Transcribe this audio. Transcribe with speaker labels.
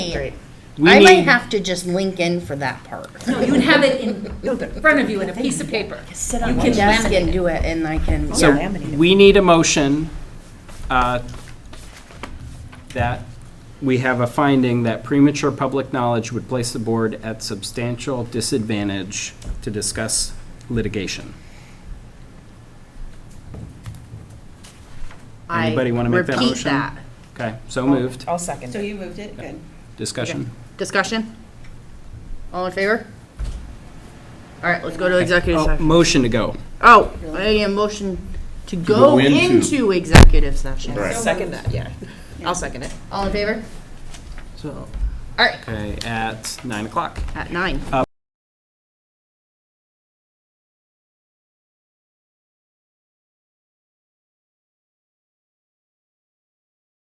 Speaker 1: Great.
Speaker 2: We
Speaker 1: I might
Speaker 2: need-
Speaker 1: have to just link in for that part.
Speaker 3: No, you would have it in front of you in a piece of paper.
Speaker 4: Sit
Speaker 3: You
Speaker 4: on
Speaker 3: can
Speaker 4: one.
Speaker 1: Desk
Speaker 3: laminate
Speaker 1: and
Speaker 3: it.
Speaker 1: do it, and I can,
Speaker 2: So
Speaker 1: yeah.
Speaker 4: laminate it.
Speaker 2: we need a motion uh, that we have a finding that premature public knowledge would place the board at substantial disadvantage to discuss litigation.
Speaker 1: I
Speaker 2: Anybody want to make that motion?
Speaker 1: repeat that.
Speaker 2: Okay, so moved.
Speaker 4: I'll second
Speaker 5: So
Speaker 4: it.
Speaker 5: you moved it, good.
Speaker 2: Discussion.
Speaker 1: Discussion? All in favor? All right, let's go to executive
Speaker 2: Oh,
Speaker 1: session.
Speaker 2: Motion to go.
Speaker 1: Oh, I am motion to go into executive session.
Speaker 4: Second that, yeah. I'll second it.
Speaker 1: All in favor?
Speaker 2: So,
Speaker 1: All right,
Speaker 2: okay, at nine o'clock.
Speaker 1: at nine.